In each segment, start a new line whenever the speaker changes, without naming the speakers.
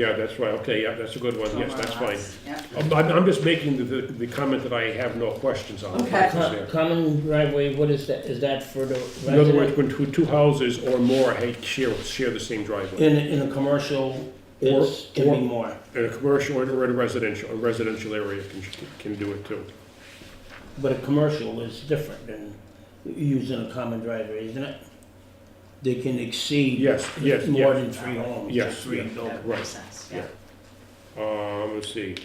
Yeah, that's right, okay, yeah, that's a good one, yes, that's fine.
Yeah.
I'm, I'm I'm just making the, the the comment that I have no questions on. the
Okay.
houses
Co-
there.
Common driveway, what is that, is that for the
In other words,
resident?
when two, two houses or more ha- share, share the same driveway,
In, in a commercial, it's,
Or-
can
or-
be more.
in a commercial or in a residential, a residential area can, can do it too.
But a commercial is different than using a common driveway, isn't it? They can exceed.
Yes, yes,
More
yes.
than three homes, or
Yes,
three
yeah.
That
buildings.
Right.
makes sense,
Yeah.
yeah.
Um, let's see,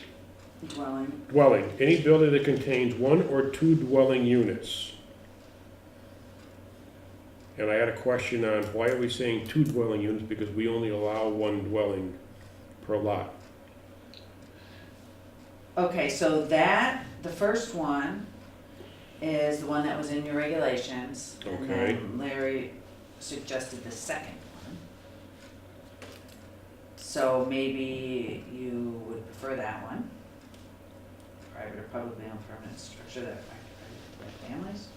Dwelling,
dwelling, any building that contains one or two dwelling units. And I had a question on why are we saying two dwelling units, because we only allow one dwelling per lot.
okay, so that, the first one is the one that was in your regulations. And
Okay.
then Larry suggested the second one. So maybe you would prefer that one. Private or publicly owned permanent structure that affects families.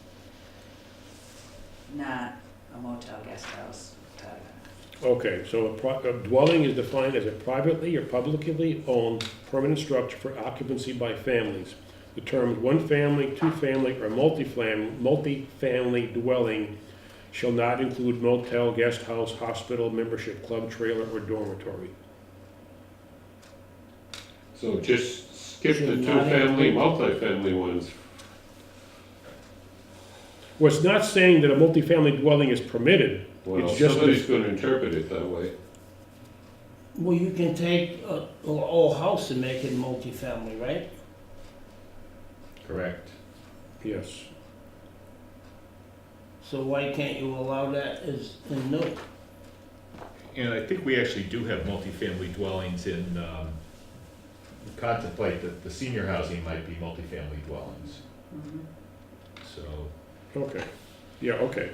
Not a motel, guest house, da, da, da.
Okay, so a pro- a dwelling is defined as a privately or publicly owned permanent structure for occupancy by families. The terms one-family, two-family, or multifam, multifamily dwelling shall not include motel, guest house, hospital, membership club, trailer, or dormitory.
So just skip the
Should not
two-family,
include-
multifamily ones.
Well, it's not saying that a multifamily dwelling is permitted.
Well,
It's just
somebody's gonna interpret it that way.
Well, you can take a, a whole house and make it multifamily, right?
Correct.
Yes.
So why can't you allow that as, in new?
And I think we actually do have multifamily dwellings in, um, contemplate that the senior housing might be multifamily dwellings,
Mhm.
so.
Okay. Yeah, okay.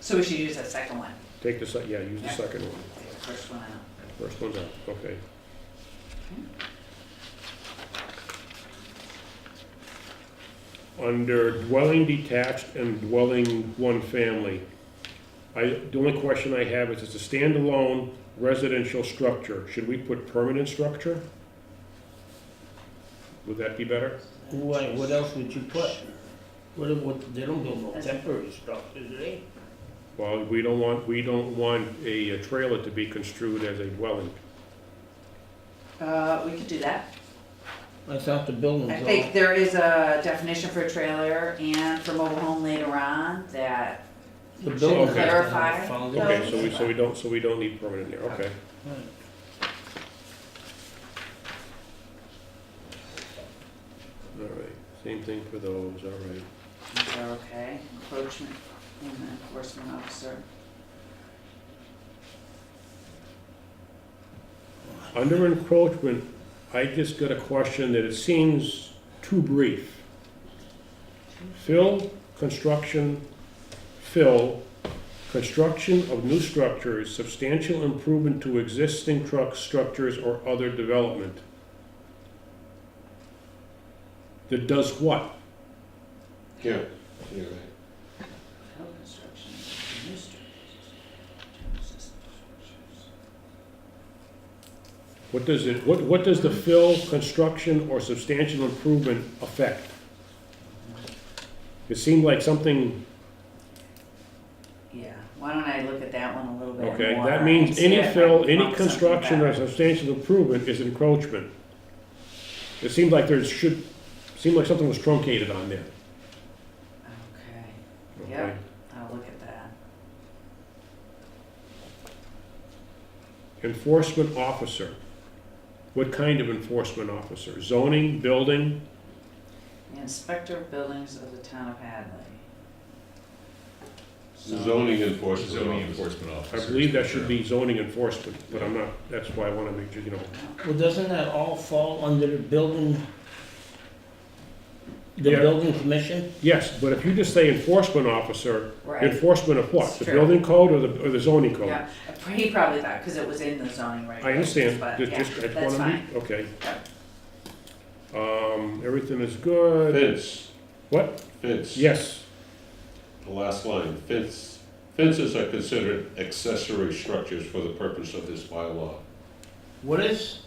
So we should use that second one,
Take the, se- yeah, use the second one.
take the first one out.
First one's out, okay. Under dwelling detached and dwelling one family, I, the only question I have is, it's a standalone residential structure, should we put permanent structure? Would that be better?
Why, what else would you put? What, what, they don't build no temporary structures, do they?
Well, we don't want, we don't want a a trailer to be construed as a dwelling.
Uh, we could do that.
I thought the buildings
I
all.
think there is a definition for trailer and for mobile home later on that,
The building has to have a
Clarify.
foundation.
Okay, so we, so we don't, so we don't need permanent there, okay.
Right.
All right, same thing for those, all right.
these are okay, encroachment and the enforcement officer.
Under encroachment, I just got a question that it seems too brief. Fill, construction, fill, construction of new structures, substantial improvement to existing truck structures or other development. That does what?
Yeah, you're right.
Code construction, new structures, general system structures.
What does it, what, what does the fill, construction, or substantial improvement affect? It seemed like something,
Yeah, why don't I look at that one a little bit more?
okay, that
and
means
see
any
if I
fill,
can
any
lump something
construction or
back.
substantial improvement is encroachment. It seemed like there should, seemed like something was truncated on there.
Okay,
okay?
Yeah. I'll look at that.
Enforcement officer. What kind of enforcement officer? Zoning, building?
The Inspector of Buildings of the Town of Hadley. So-
Zoning
Zoning
enforcement officer.
enforcement
I
officer.
believe that should be zoning enforcement, but I'm not, that's why I wanna make, sure, you know,
Well, doesn't that all fall under the building, the
Yeah.
building commission?
Yes, but if you just say enforcement officer,
Right,
enforcement of what?
It's
The
true.
building code or the, or the zoning code?
yeah, he probably thought, because it was in the zoning
I
regulations,
understand,
but
just,
yeah,
just, I
that's
just wanna
fine.
be, okay. Um, everything is good,
Fence.
What?
Fence.
yes,
The last line, fence, fences are considered accessory structures for the purpose of this bylaw.
What is